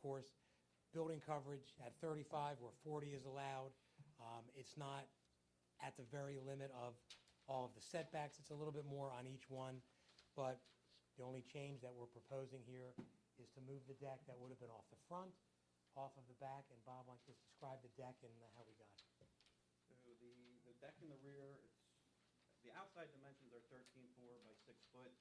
course, building coverage at 35 where 40 is allowed. Um, It's not at the very limit of all of the setbacks. It's a little bit more on each one, but the only change that we're proposing here is to move the deck that would have been off the front, off of the back, and Bob, why don't you just describe the deck and how we got it? So the, the deck in the rear, it's, the outside dimensions are thirteen-four by six foot.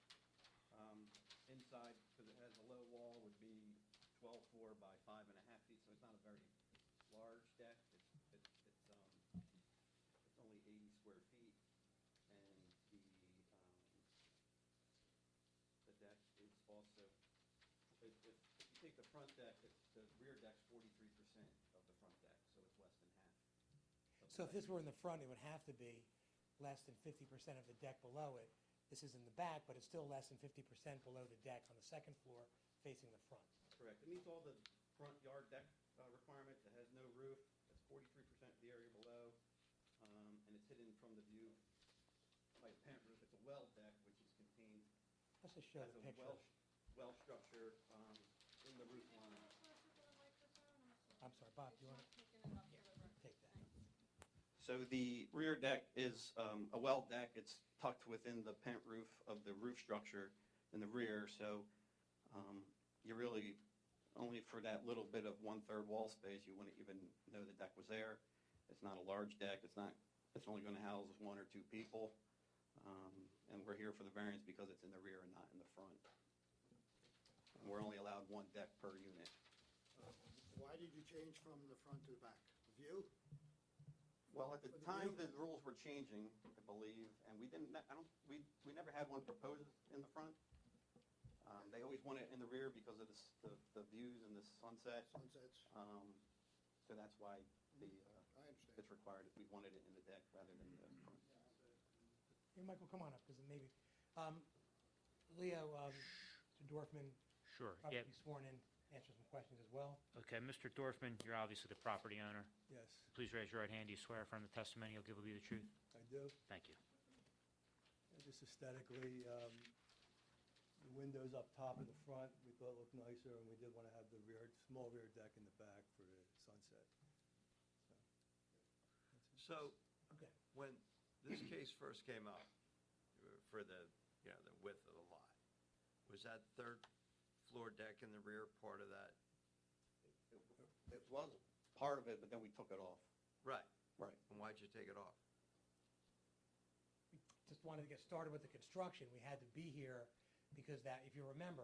Um, Inside, because it has a low wall, would be twelve-four by five and a half feet, so it's not a very large deck. It's, it's, it's, um, it's only eighty square feet, and the, um, the deck is also, if, if, if you take the front deck, it's, the rear deck's forty-three percent of the front deck, so it's less than half. of the So if deck. this were in the front, it would have to be less than 50% of the deck below it. This is in the back, but it's still less than 50% below the deck on the second floor facing the front. Correct. It meets all the front yard deck uh, requirements. It has no roof. It's forty-three percent of the area below. um, And it's hidden from the view by a pent roof. It's a well deck, which is contained Let's just show as the a picture. well, well structure um, in the roof line. I'm sorry, Bob, do you want to um, take that? So the rear deck is um, a well deck. It's tucked within the pent roof of the roof structure in the rear. So um, you really, only for that little bit of one-third wall space, you wouldn't even know the deck was there. It's not a large deck. It's not, it's only going to house one or two people. Um, And we're here for the variance because it's in the rear and not in the front. And we're only allowed one deck per unit. Uh, Why did you change from the front to the back? View? Well, at the For the time, view? the rules were changing, I believe, and we didn't, I don't, we, we never had one proposed in the front. Um, they always want it in the rear because of the, s- the, the views and the sunset. Sunsets? Um, so that's why the, uh, I understand. it's required, we wanted it in the deck rather than the front. Here, Michael, come on up, because maybe, um, Leo, um, Mr. Dorfman, Sure, probably yeah, be sworn in, answer some questions as well. okay, Mr. Dorfman, you're obviously the property owner. Yes, Please raise your right hand, do you swear affirm the testimony you'll give will be the truth? I do. Thank you. And Just aesthetically, um, the windows up top in the front, we thought looked nicer, and we did want to have the rear, small rear deck in the back for the sunset. So, Okay. when this case first came up, uh, for the, you know, the width of the lot, was that third floor deck in the rear part of that? It was part of it, but then we took it off. Right. Right. And why'd you take it off? Just wanted to get started with the construction, we had to be here, because that, if you remember,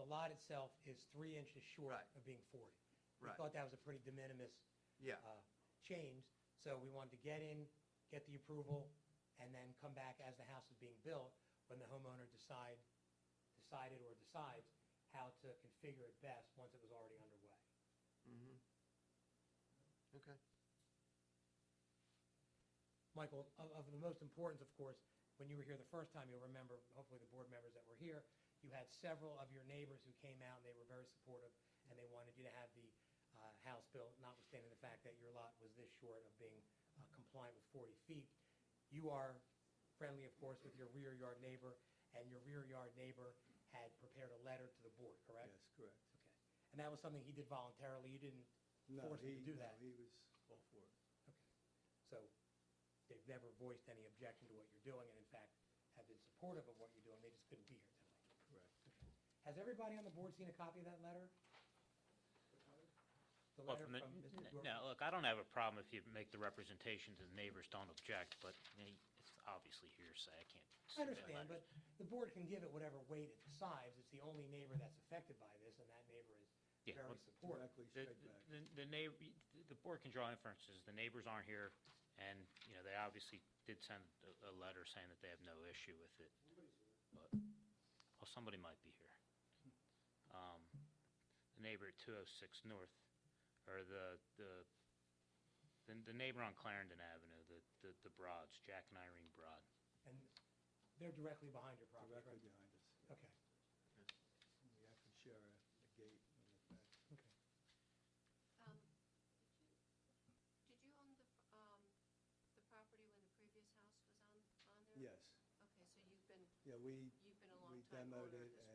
the lot itself is three inches short Right. of being forty. We Right. thought that was a pretty de minimis, Yeah, uh, change, so we wanted to get in, get the approval, and then come back as the house is being built, when the homeowner decide, decided or decides how to configure it best, once it was already underway. mhm. Okay. Michael, of, of the most importance, of course, when you were here the first time, you'll remember, hopefully the board members that were here, you had several of your neighbors who came out and they were very supportive and they wanted you to have the, uh, house built, notwithstanding the fact that your lot was this short of being uh, compliant with forty feet. You are friendly, of course, with your rear yard neighbor and your rear yard neighbor had prepared a letter to the board, correct? Yes, correct. Okay. And that was something he did voluntarily. You didn't No, Forced he- to do no, that. He was all for it. so they've never voiced any objection to what you're doing, and in fact, have been supportive of what you're doing, they just couldn't be here tonight. Correct. Has everybody on the board seen a copy of that letter? The Well, letter from the- from Mr. n- Dorfman? No, look, I don't have a problem if you make the representation that the neighbors don't object, but you know, it's obviously hearsay, I can't. I submit understand, letters. but the board can give it whatever weight it decides, it's the only neighbor that's affected by this, and that neighbor is Yeah, very well, supportive. Directly The, straight back. the, the neighbor, the board can draw inferences, the neighbors aren't here, and, you know, they obviously did send a, a letter saying that they have no issue with it. But, well, somebody might be here. Um, the neighbor at two oh six north, or the, the, the, the neighbor on Clarendon Avenue, the, the, the Broads, Jack and Irene Broad. And they're directly behind your property, Directly right? behind us. yeah. Okay, And We actually share a a gate on the back. okay. Um, Did you own the, um, the property when the previous house was on, on there? Yes, Okay, so you've been, yeah, we, you've been a we long time demoed owner of it this